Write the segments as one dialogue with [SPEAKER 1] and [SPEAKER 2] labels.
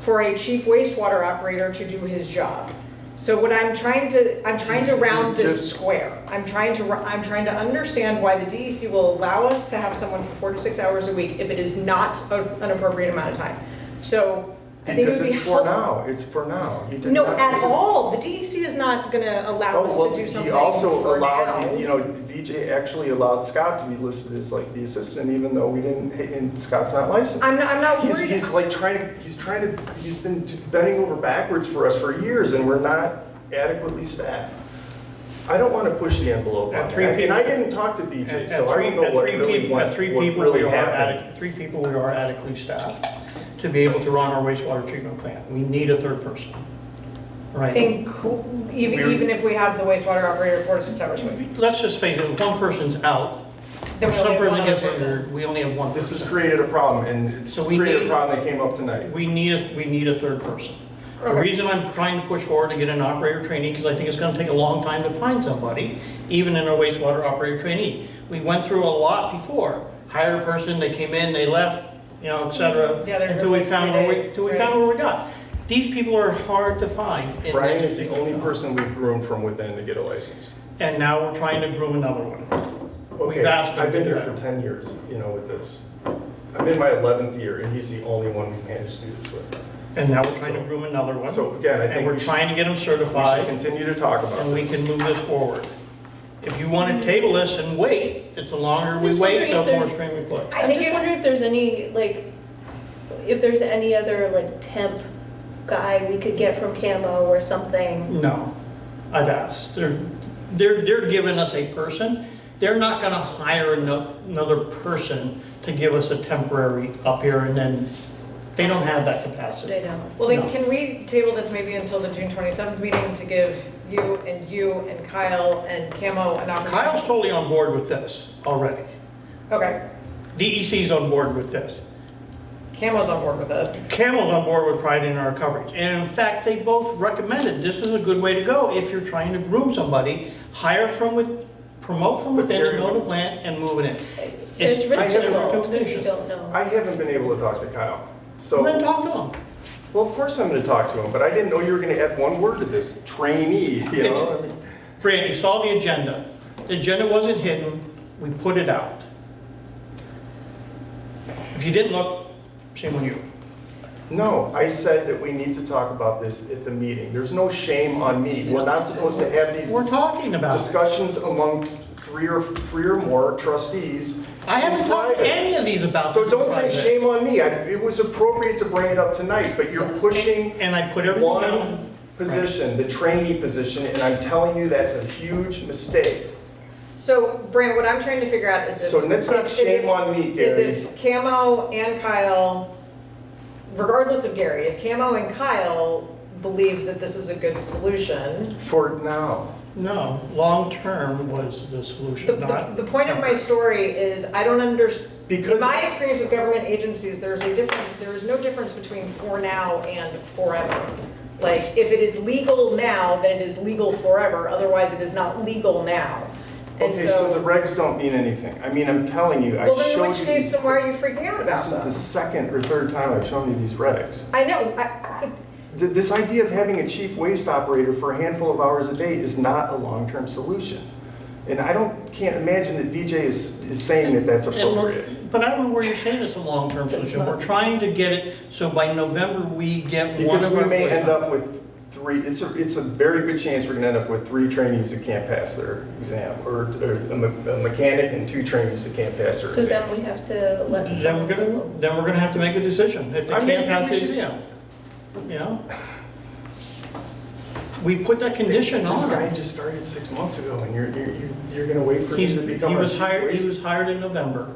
[SPEAKER 1] for a chief wastewater operator to do his job. So what I'm trying to, I'm trying to
[SPEAKER 2] Is- is
[SPEAKER 1] round this
[SPEAKER 2] just-
[SPEAKER 1] square. I'm trying to, ru- I'm trying to understand why the DEC will allow us to have someone for four to six hours a week if it is not a- an appropriate amount of time. So I think it
[SPEAKER 2] Because
[SPEAKER 1] would be
[SPEAKER 2] it's for
[SPEAKER 1] helpful.
[SPEAKER 2] now, it's for now. He did
[SPEAKER 1] No,
[SPEAKER 2] not-
[SPEAKER 1] at
[SPEAKER 2] this is-
[SPEAKER 1] all, the DEC is not gonna allow us
[SPEAKER 2] Oh,
[SPEAKER 1] to
[SPEAKER 2] well,
[SPEAKER 1] do
[SPEAKER 2] he
[SPEAKER 1] something
[SPEAKER 2] also
[SPEAKER 1] for
[SPEAKER 2] allowed, you
[SPEAKER 1] now.
[SPEAKER 2] know, VJ actually allowed Scott to be listed as like the assistant, even though we didn't, and Scott's not licensed.
[SPEAKER 1] I'm not, I'm not
[SPEAKER 2] He's,
[SPEAKER 1] worried,
[SPEAKER 2] he's like trying to, he's trying to, he's been bending over backwards for us for years and we're not adequately staffed. I don't want to push the envelope
[SPEAKER 3] At
[SPEAKER 2] on that.
[SPEAKER 3] three
[SPEAKER 2] And
[SPEAKER 3] people-
[SPEAKER 2] I didn't talk to
[SPEAKER 3] At
[SPEAKER 2] VJ,
[SPEAKER 3] at
[SPEAKER 2] so I
[SPEAKER 3] three,
[SPEAKER 2] don't know
[SPEAKER 3] at
[SPEAKER 2] what
[SPEAKER 3] three
[SPEAKER 2] really
[SPEAKER 3] people,
[SPEAKER 2] went,
[SPEAKER 3] at
[SPEAKER 2] what
[SPEAKER 3] three people, we
[SPEAKER 2] really
[SPEAKER 3] are
[SPEAKER 2] happened.
[SPEAKER 3] adequate, three people, we are adequately staffed to be able to run our wastewater treatment plant. We need a third person. Right?
[SPEAKER 1] inclu- even, even if we have the wastewater operator four to six hours a week.
[SPEAKER 3] Let's just face it, if one person's out,
[SPEAKER 1] Then
[SPEAKER 3] if
[SPEAKER 1] we
[SPEAKER 3] some
[SPEAKER 1] only have
[SPEAKER 3] person
[SPEAKER 1] one other
[SPEAKER 3] gets injured, we only have one
[SPEAKER 2] This has
[SPEAKER 3] person.
[SPEAKER 2] created a problem and it's
[SPEAKER 3] So we
[SPEAKER 2] created a
[SPEAKER 3] need-
[SPEAKER 2] problem that came up tonight.
[SPEAKER 3] We need, a we need a third person. The
[SPEAKER 1] Okay.
[SPEAKER 3] reason I'm trying to push forward to get an operator trainee, because I think it's gonna take a long time to find somebody, even in a wastewater operator trainee. We went through a lot before, hired a person, they came in, they left, you know, et cetera,
[SPEAKER 1] Yeah, they're
[SPEAKER 3] until we
[SPEAKER 1] here for
[SPEAKER 3] found
[SPEAKER 1] three
[SPEAKER 3] where we,
[SPEAKER 1] days,
[SPEAKER 3] until we
[SPEAKER 1] right.
[SPEAKER 3] found where we got. These people are hard to find. in
[SPEAKER 2] Brian
[SPEAKER 3] this
[SPEAKER 2] is the
[SPEAKER 3] particular
[SPEAKER 2] only
[SPEAKER 3] job.
[SPEAKER 2] person we've groomed from within to get a license.
[SPEAKER 3] And now we're trying to groom another one.
[SPEAKER 2] Okay,
[SPEAKER 3] We've asked him
[SPEAKER 2] I've been
[SPEAKER 3] to do
[SPEAKER 2] here
[SPEAKER 3] that.
[SPEAKER 2] for 10 years, you know, with this. I'm in my 11th year, and he's the only one we managed to do this with.
[SPEAKER 3] And now we're trying to groom another one.
[SPEAKER 2] So again, I think
[SPEAKER 3] And we're
[SPEAKER 2] we should-
[SPEAKER 3] trying to get them
[SPEAKER 2] We should
[SPEAKER 3] certified.
[SPEAKER 2] continue to talk about
[SPEAKER 3] and we can
[SPEAKER 2] this.
[SPEAKER 3] move this forward. If you want to table this and wait, it's the longer we
[SPEAKER 4] Just
[SPEAKER 3] wait,
[SPEAKER 4] wondering
[SPEAKER 3] the
[SPEAKER 4] if
[SPEAKER 3] more
[SPEAKER 4] there's-
[SPEAKER 3] streaming play.
[SPEAKER 1] I
[SPEAKER 4] I'm
[SPEAKER 1] think
[SPEAKER 4] just
[SPEAKER 1] it-
[SPEAKER 4] wondering if there's any, like, if there's any other, like, temp guy we could get from Camo or something.
[SPEAKER 3] No, I've asked. They're, they're, they're giving us a person. They're not going to hire ano- another person to give us a temporary up here and then, they don't have that
[SPEAKER 4] They
[SPEAKER 3] capacity.
[SPEAKER 4] don't.
[SPEAKER 1] Well, then,
[SPEAKER 3] No.
[SPEAKER 1] can we table this maybe until the June 27th meeting to give you and you and Kyle and Camo an
[SPEAKER 3] Kyle's
[SPEAKER 1] opportunity?
[SPEAKER 3] totally on board with this already.
[SPEAKER 1] Okay,
[SPEAKER 3] DEC's on board with this.
[SPEAKER 1] Camo's on board with it.
[SPEAKER 3] Camel's on board with Pride in our coverage. And in fact, they both recommended this is a good way to go if you're trying to groom somebody, hire from with, promote from within, and build a plant and move it in.
[SPEAKER 4] There's
[SPEAKER 3] It's- I
[SPEAKER 4] risk
[SPEAKER 2] have a
[SPEAKER 4] involved, because you
[SPEAKER 3] recommendation.
[SPEAKER 4] don't know.
[SPEAKER 2] I haven't been able to talk to Kyle. So,
[SPEAKER 3] Well, Then talk to them.
[SPEAKER 2] well, of course I'm going to talk to him, but I didn't know you were going to add one word to this, trainee, you
[SPEAKER 3] It's-
[SPEAKER 2] know? I mean,
[SPEAKER 3] Brand, you saw the agenda. The agenda wasn't hidden, we put it out. If you didn't look, shame on you.
[SPEAKER 2] No, I said that we need to talk about this at the meeting. There's no shame on me. We're not supposed to have these
[SPEAKER 3] We're talking about it.
[SPEAKER 2] discussions amongst three or, three or more trustees.
[SPEAKER 3] I haven't talked to
[SPEAKER 2] Private.
[SPEAKER 3] any of these about.
[SPEAKER 2] So
[SPEAKER 3] this
[SPEAKER 2] don't say
[SPEAKER 3] project.
[SPEAKER 2] shame on me. I- It was appropriate to bring it up tonight, but you're pushing
[SPEAKER 3] And I put everything out.
[SPEAKER 2] one position, the trainee position, and I'm telling you, that's a huge mistake.
[SPEAKER 1] So, Brant, what I'm trying to figure out is if.
[SPEAKER 2] So that's not
[SPEAKER 1] is
[SPEAKER 2] shame
[SPEAKER 1] if-
[SPEAKER 2] on me,
[SPEAKER 1] Is
[SPEAKER 2] Gary.
[SPEAKER 1] if Camo and Kyle, regardless of Gary, if Camo and Kyle believe that this is a good solution,
[SPEAKER 2] For now,
[SPEAKER 3] No, long-term was the
[SPEAKER 1] The,
[SPEAKER 3] solution,
[SPEAKER 1] the,
[SPEAKER 3] not.
[SPEAKER 1] the point of my story is, I don't understand. in
[SPEAKER 2] Because-
[SPEAKER 1] my experience with government agencies, there's a different, there is no difference between for now and forever. Like, if it is legal now, then it is legal forever, otherwise it is not legal now. And
[SPEAKER 2] okay, so the regs don't mean anything. I mean, I'm telling you, I
[SPEAKER 1] Well, then in
[SPEAKER 2] showed
[SPEAKER 1] which case,
[SPEAKER 2] you.
[SPEAKER 1] then why are you freaking out about
[SPEAKER 2] This is the
[SPEAKER 1] them?
[SPEAKER 2] second or third time I've shown you these regs.
[SPEAKER 1] I know, I,
[SPEAKER 2] Th- This idea of having a chief waste operator for a handful of hours a day is not a long-term solution. And I don't, can't imagine that VJ is, is saying that that's
[SPEAKER 3] And we're-
[SPEAKER 2] appropriate.
[SPEAKER 3] But I don't know where you're saying it's a long-term solution. We're trying to get it, so by November, we get one
[SPEAKER 2] Because
[SPEAKER 3] of
[SPEAKER 2] we
[SPEAKER 3] our.
[SPEAKER 2] may end up with three, it's a, it's a very good chance we're gonna end up with three trainees who can't pass their exam, or or a me- a mechanic and two trainees that can't pass their
[SPEAKER 4] So then
[SPEAKER 2] exam.
[SPEAKER 4] we have to let
[SPEAKER 3] Then we're
[SPEAKER 4] someone.
[SPEAKER 3] gonna, then we're gonna have to make a decision, if they
[SPEAKER 2] I mean,
[SPEAKER 3] can't pass
[SPEAKER 2] we
[SPEAKER 3] the
[SPEAKER 2] should-
[SPEAKER 3] exam, you know? We put that condition
[SPEAKER 2] This guy
[SPEAKER 3] on.
[SPEAKER 2] just started six months ago, and you're, you're, you're- you're gonna wait for
[SPEAKER 3] He's-
[SPEAKER 2] him to become
[SPEAKER 3] He
[SPEAKER 2] our
[SPEAKER 3] was
[SPEAKER 2] chief
[SPEAKER 3] hired, he
[SPEAKER 2] waste-
[SPEAKER 3] was hired in November.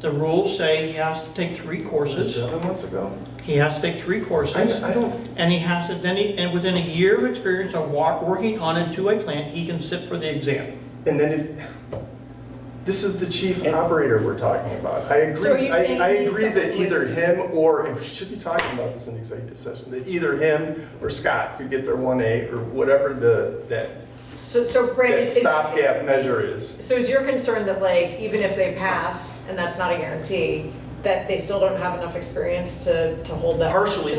[SPEAKER 3] The rules say he has to take three courses.
[SPEAKER 2] Seven months ago?
[SPEAKER 3] He has to take three courses.
[SPEAKER 2] I- I don't-
[SPEAKER 3] And he has to, then he, and within a year of experience of wa- working on a two-way plant, he can sit for the exam.
[SPEAKER 2] And then if, this is the chief operator we're talking about. I
[SPEAKER 4] So are
[SPEAKER 2] agree,
[SPEAKER 4] you
[SPEAKER 2] I,
[SPEAKER 4] saying
[SPEAKER 2] I
[SPEAKER 4] he's
[SPEAKER 2] agree that
[SPEAKER 4] someone with-
[SPEAKER 2] either him or, and we should be talking about this in executive session, that either him or Scott could get their one A or whatever the, that,
[SPEAKER 1] so, so Brad,
[SPEAKER 2] that
[SPEAKER 1] is, is-
[SPEAKER 2] stopgap measure is.
[SPEAKER 1] so is your concern that like, even if they pass, and that's not a guarantee, that they still don't have enough experience to, to hold that
[SPEAKER 2] Partially,